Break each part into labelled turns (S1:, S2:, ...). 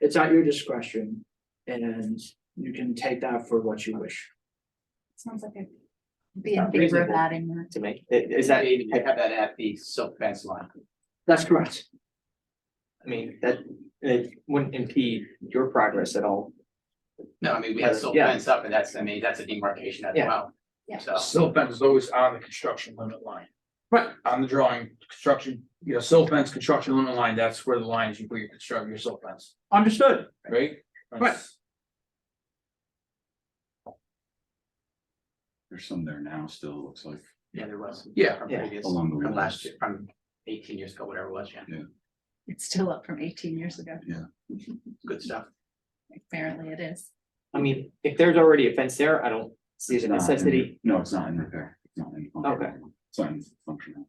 S1: it's at your discretion. And you can take that for what you wish.
S2: Sounds like I'd be in
S3: Not
S2: favor of
S3: reasonable.
S2: adding that.
S3: to make, i- is that,
S4: Maybe have that at the silk fence line.
S1: That's correct.
S3: I mean, that, it wouldn't impede your progress at all.
S4: No, I mean, we have silk
S3: Yeah.
S4: fence up and that's, I mean, that's a demarcation as
S3: Yeah.
S4: well.
S2: Yeah.
S4: So,
S5: Silt fence is always on the construction limit line.
S3: Right.
S5: On the drawing, construction, you know, silt fence, construction limit line, that's where the line is, you put your construct, your silt fence,
S1: Understood.
S5: right? That's-
S6: There's some there now still, it looks like,
S4: yeah, there was. some
S5: Yeah.
S4: From
S3: Yeah.
S4: previous,
S6: along the
S4: from last
S6: walls.
S4: year, from eighteen years ago, whatever it was, yeah,
S2: It's still up from eighteen years ago.
S4: good stuff.
S2: Apparently it is.
S3: I mean, if there's already a fence there, I don't see
S6: It's
S3: the
S6: not mm-hmm. in-
S3: necessity.
S6: No, it's not in repair. It's not in. function.
S3: Okay.
S6: It's not in functional.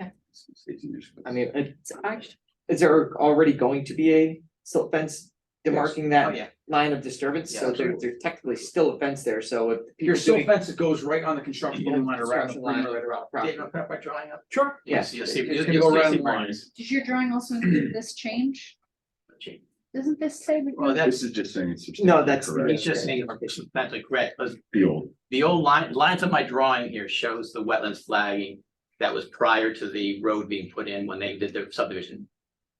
S2: Okay.
S6: It's- it's 18 years ago.
S3: I mean, it-
S2: So I-
S3: is there already going to be a silt fence demarking
S4: Oh,
S3: that
S4: yeah,
S3: line of disturbance?
S4: Yeah,
S3: So there,
S4: absolutely.
S3: there's technically still a fence there, so if.
S5: Your
S3: people
S5: silt
S3: doing-
S5: fence that goes right on the construction limit line around the
S3: Construction line.
S5: perimeter around the
S4: Yeah,
S5: property.
S4: no, by drawing up.
S3: Sure,
S4: You'll
S3: yeah.
S4: see- you'll see-
S5: It's
S4: you'll-
S5: gonna
S4: you'll
S5: go
S4: see
S5: around
S4: some
S5: the lines.
S2: Does your drawing also include this change?
S4: markings.
S2: Doesn't this say? we-
S4: Well, that's,
S6: This is just saying it's.
S3: No, that's-
S6: substantially
S4: it's
S6: correct.
S4: just saying, that's like red, 'cause
S6: The old,
S4: the old line, lines on my drawing here shows the wetlands flagging that was prior to the road being put in when they did their subdivision.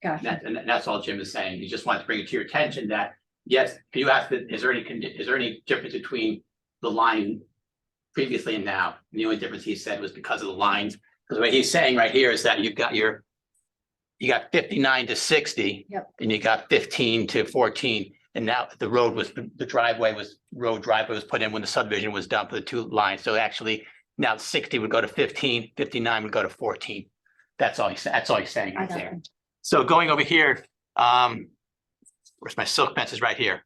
S4: And
S2: Gotcha.
S4: That, and that's all Jim is saying. He just wants to bring it to your attention that, yes, you asked, that, is there any, condi- is there any difference between the line previously and now? And The only difference he said was because of the lines, because what he's saying right here is that you've got your, you got fifty-nine to sixty.
S2: Yep.
S4: And you got fifteen to fourteen, and now the road was, the driveway was, road driveway was put in when the subdivision was done for the two lines. So actually, now sixty would go to 15, 59 would go to fourteen. That's all he's, that's all he's saying
S2: I
S4: right
S2: got
S4: there.
S2: them.
S4: So going over here, um, where's my silk fence is right here.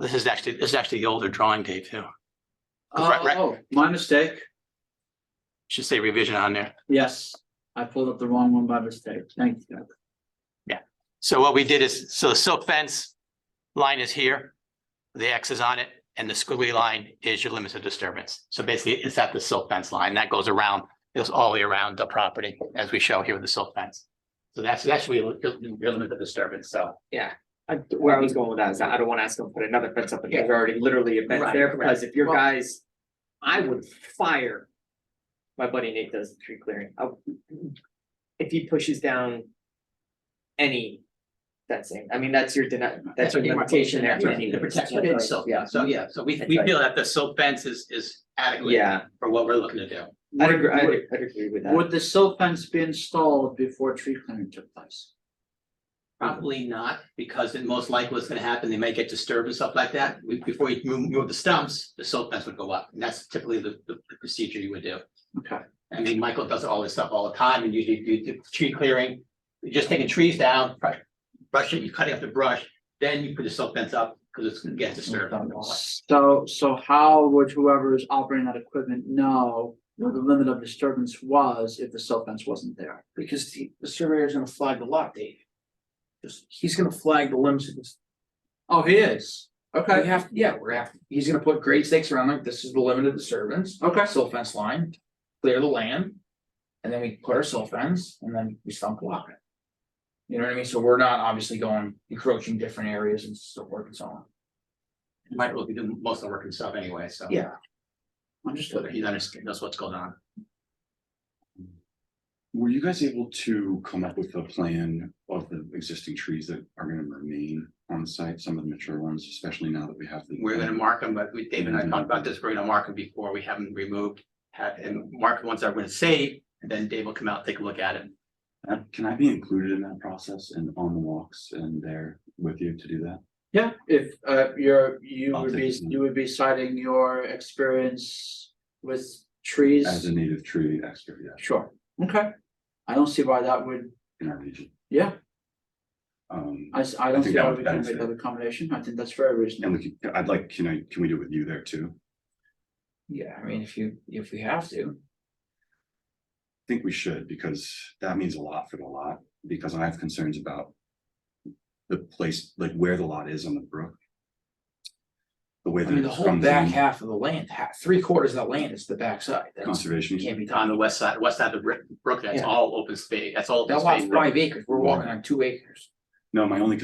S4: This is actually, this is actually the older drawing, Dave, too. Right, right.
S1: Oh, my mistake.
S4: Should say revision on there.
S1: Yes, I pulled up the wrong one by mistake. Thank you.
S4: So what we did is, so the silk fence line is here, the X is on it, and the squiggly line is your limits of disturbance. So basically, it's at the silk fence line. That goes around, it goes all the way around the property, as we show here with the silk fence. So that's, that's where your, your your limit of disturbance, so.
S3: I, where I was going with that is that I don't wanna ask them to put another fence up, if there's already literally a fence
S4: Right,
S3: there, because if your
S4: Well-
S3: guys, I would fire. My buddy Nate does tree clearing, I- if he pushes down any fencing, I mean, that's your deny, that's your limitation there.
S4: The protection of the silk,
S3: Yeah,
S4: so, yeah, so we,
S3: That's
S4: we
S3: right.
S4: feel that the silk fence is, is adequate.
S3: yeah,
S4: for what we're looking to do.
S3: I
S1: Would-
S3: agree, I
S1: would-
S3: agree with that.
S1: Would the silt fence be installed before tree clearing took place?
S4: Probably not, because it most likely what's gonna happen, they may get disturbed and stuff like that. We- Before you move, move the stumps, the silt fence would go up, and that's typically the, the the procedure you would do.
S1: Okay.
S4: I mean, Michael does all this stuff all the time, and usually you do tree clearing, you're just taking trees down, brush- brushing, you're cutting up the brush, then you put the silt fence up, because it's gonna get disturbed.
S1: So, so how would whoever is operating that equipment know what the limit of disturbance was if the silt fence wasn't there?
S3: Because the, the surveyor's gonna flag the lot, Dave.
S5: Just- He's gonna flag the limbs of this.
S1: Oh, he is.
S5: We have, yeah, we're gonna have, he's gonna put grade stakes around like, this is the limit of disturbance,
S1: Okay.
S5: silt fence line, clear the land. And then we put our silt fence and then we stump block it. You know what I mean? So we're not obviously going encroaching different areas and so forth and so on.
S4: Michael will be doing most of the work himself anyway, so.
S5: Yeah.
S4: So
S1: Understood.
S4: He understands, knows what's going on.
S6: were you guys able to come up with a plan of the existing trees that are gonna remain on site, some of the mature ones, especially now that we have the.
S4: We're gonna mark them, but we, Dave and I talked about this, we're gonna mark them before we have them removed. Have, and mark the ones that we're gonna save, and then Dave will come out, take a look at it.
S6: Uh, Can I be included in that process and on the walks and there with you to do that?
S1: Yeah, if uh you're, you
S6: I'll
S1: would be,
S6: take it.
S1: you would be citing your experience with trees.
S6: As a native tree expert, yeah,
S1: Sure, okay. I don't see why that would,
S6: in our region.
S1: yeah,
S6: Um,
S1: I s- I don't see
S6: think that
S1: why
S6: would
S1: we can make
S6: benefit.
S1: that accommodation. I think that's very reasonable.
S6: and we could, I'd like, can I, can we do it with you there too?
S5: Yeah, I mean, if you, if we have to.
S6: think we should, because that means a lot for the lot, because I have concerns about. The place, like where the lot is on the brook. The way
S5: I
S6: that
S5: mean, the
S6: it
S5: whole
S6: comes
S5: back
S6: in,
S5: half of the land, half, three quarters of the land is the backside. That's,
S6: conservation, easement,
S5: can't be
S4: On
S5: done.
S4: the west side, west side of the brook, brook, that's
S3: Yeah.
S4: all open space, that's all. open
S5: That lot's
S4: space.
S5: five acres. We're walking on two acres.
S6: no, my only